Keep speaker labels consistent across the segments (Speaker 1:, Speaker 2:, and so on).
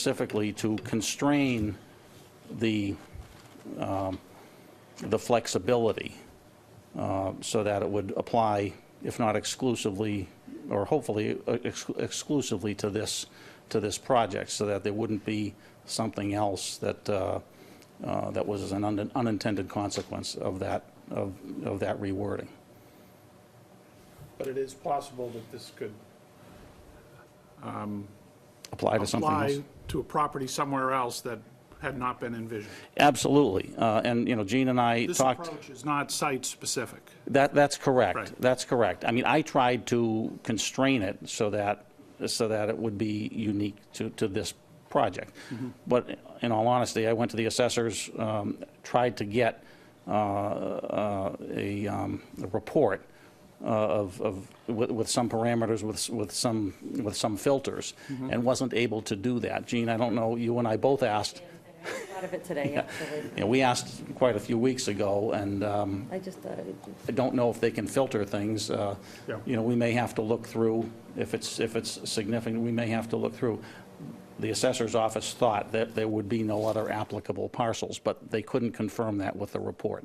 Speaker 1: specifically to constrain the, um, the flexibility uh, so that it would apply, if not exclusively, or hopefully uh, ex- exclusively to this, to this project, so that there wouldn't be something else that, uh, uh, that was an un- unintended consequence of that, of of that rewording.
Speaker 2: But it is possible that this could
Speaker 1: Apply to something else.
Speaker 2: apply to a property somewhere else that had not been envisioned.
Speaker 1: Absolutely. Uh, And, you know, Gene and I
Speaker 2: This
Speaker 1: talked.
Speaker 2: approach is not site-specific.
Speaker 1: That, that's correct.
Speaker 2: Right.
Speaker 1: That's correct. I mean, I tried to constrain it so that, so that it would be unique to, to this project. But in all honesty, I went to the assessors, um, tried to get uh, uh, a, um, a report uh, of, of, with, with some parameters, with, with some, with some filters, and wasn't able to do that. Gene, I don't know, you and I both asked,
Speaker 3: Thought of it today, actually.
Speaker 1: you know, we asked quite a few weeks ago, and um,
Speaker 3: I just thought, it-
Speaker 1: I don't know if they can filter things. uh,
Speaker 2: Yeah.
Speaker 1: You know, we may have to look through, if it's, if it's significant, we may have to look through. The assessor's office thought that there would be no other applicable parcels, but they couldn't confirm that with the report.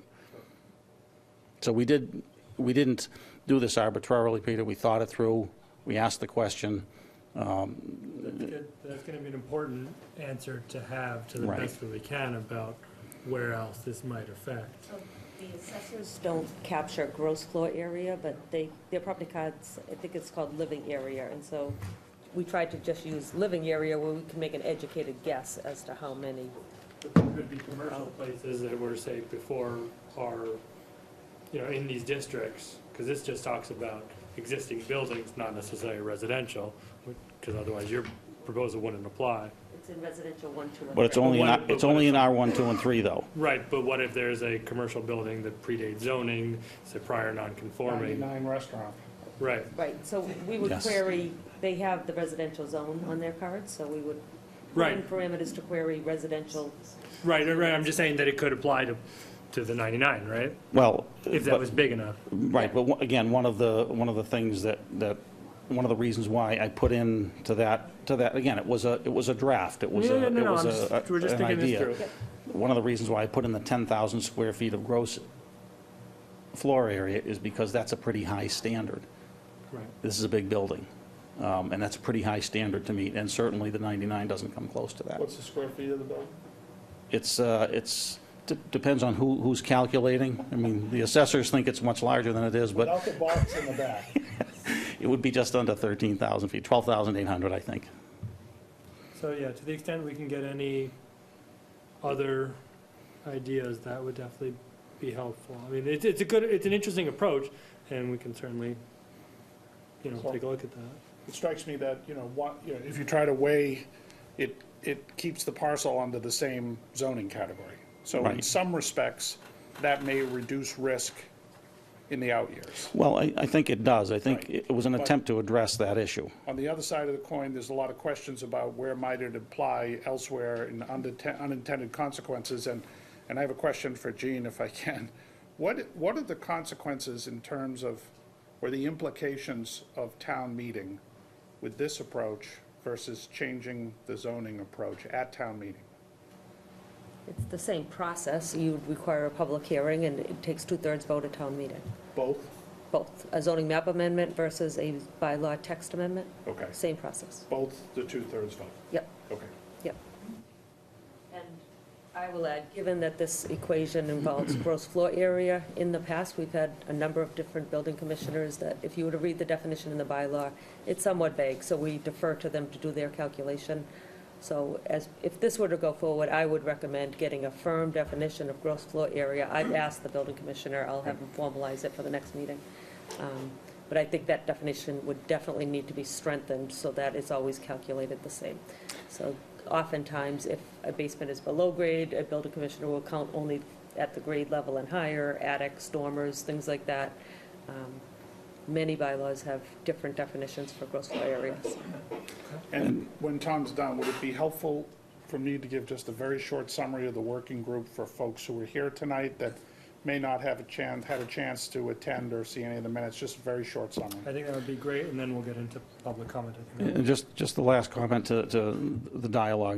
Speaker 1: So we did, we didn't do this arbitrarily, Peter. We thought it through. We asked the question.
Speaker 4: Good. That's gonna be an important answer to have to the
Speaker 1: Right.
Speaker 4: best that we can about where else this might affect.
Speaker 3: the assessors don't capture gross floor area, but they, their property cards, I think it's called living area, and so we tried to just use living area where we can make an educated guess as to how many.
Speaker 4: Could be commercial places that were, say, before are, you know, in these districts, because this just talks about existing buildings, not necessarily residential, because otherwise your proposal wouldn't apply.
Speaker 3: It's in residential one, two, and
Speaker 1: But it's
Speaker 3: three.
Speaker 1: only, in our-
Speaker 4: But what-
Speaker 1: it's only in R1, 2, and 3, though.
Speaker 4: Right, but what if there's a commercial building that predates zoning, say prior non-conforming?
Speaker 2: 99 restaurant.
Speaker 4: Right,
Speaker 3: Right, so we would
Speaker 1: Yes.
Speaker 3: query, they have the residential zone on their cards, so we would. put in
Speaker 4: Right.
Speaker 3: Parameters to query residential,
Speaker 4: right, right, I'm just saying that it could apply to, to the 99, right?
Speaker 1: Well.
Speaker 4: If that
Speaker 1: but-
Speaker 4: was big enough.
Speaker 1: Right, but one- again, one of the, one of the things that, that, one of the reasons why I put in to that, to that, again, it was a, it was a draft, it was
Speaker 4: Yeah,
Speaker 1: a,
Speaker 4: yeah, no,
Speaker 1: it
Speaker 4: no,
Speaker 1: was
Speaker 4: I'm just-
Speaker 1: a,
Speaker 4: we're just
Speaker 1: an
Speaker 4: thinking this
Speaker 1: idea.
Speaker 4: through.
Speaker 1: One of the reasons why I put in the 10,000 square feet of gross floor area is because that's a pretty high standard.
Speaker 4: Right.
Speaker 1: This is a big building, um, and that's a pretty high standard to meet, and certainly the 99 doesn't come close to that.
Speaker 2: What's the square feet of the building?
Speaker 1: It's, uh, it's, d- depends on who, who's calculating. I mean, the assessors think it's much larger than it is, but
Speaker 2: Without the box in the back.
Speaker 1: It would be just under 13,000 feet, 12,800, I think.
Speaker 4: So, yeah, to the extent we can get any other ideas, that would definitely be helpful. I mean, it's, it's a good, it's an interesting approach, and we can certainly, you know, take a look at that.
Speaker 2: It strikes me that, you know, what, you know, if you try to weigh, it, it keeps the parcel under the same zoning category. So in
Speaker 1: Right.
Speaker 2: some respects, that may reduce risk in the out years.
Speaker 1: Well, I, I think it does. I think
Speaker 2: Right.
Speaker 1: it was an
Speaker 2: But-
Speaker 1: attempt to address that issue.
Speaker 2: On the other side of the coin, there's a lot of questions about where might it apply elsewhere and uninte- unintended consequences. And, and I have a question for Gene, if I can. What, what are the consequences in terms of, or the implications of town meeting with this approach versus changing the zoning approach at town meeting?
Speaker 3: it's the same process, you would require a public hearing, and it takes two-thirds vote at town meeting.
Speaker 2: Both?
Speaker 3: Both, a zoning map amendment versus a bylaw text amendment,
Speaker 2: Okay.
Speaker 3: same process.
Speaker 2: Both the two-thirds vote?
Speaker 3: Yep,
Speaker 2: Okay.
Speaker 3: yep. And I will add, given that this equation involves gross floor area, in the past, we've had a number of different building commissioners that, if you were to read the definition in the bylaw, it's somewhat vague, so we defer to them to do their calculation. So as, if this were to go forward, I would recommend getting a firm definition of gross floor area. I've asked the building commissioner, I'll have him formalize it for the next meeting. Um, But I think that definition would definitely need to be strengthened so that it's always calculated the same. So oftentimes, if a basement is below grade, a building commissioner will count only at the grade level and higher, attics, dormers, things like that. Um, Many bylaws have different definitions for gross floor areas.
Speaker 2: And when Tom's done, would it be helpful for me to give just a very short summary of the working group for folks who are here tonight that may not have a chance, had a chance to attend or see any of the minutes, just a very short
Speaker 4: I
Speaker 2: summary?
Speaker 4: think that would be great, and then we'll get into public comment. I think that would be
Speaker 1: And just, just the last comment to, to the dialogue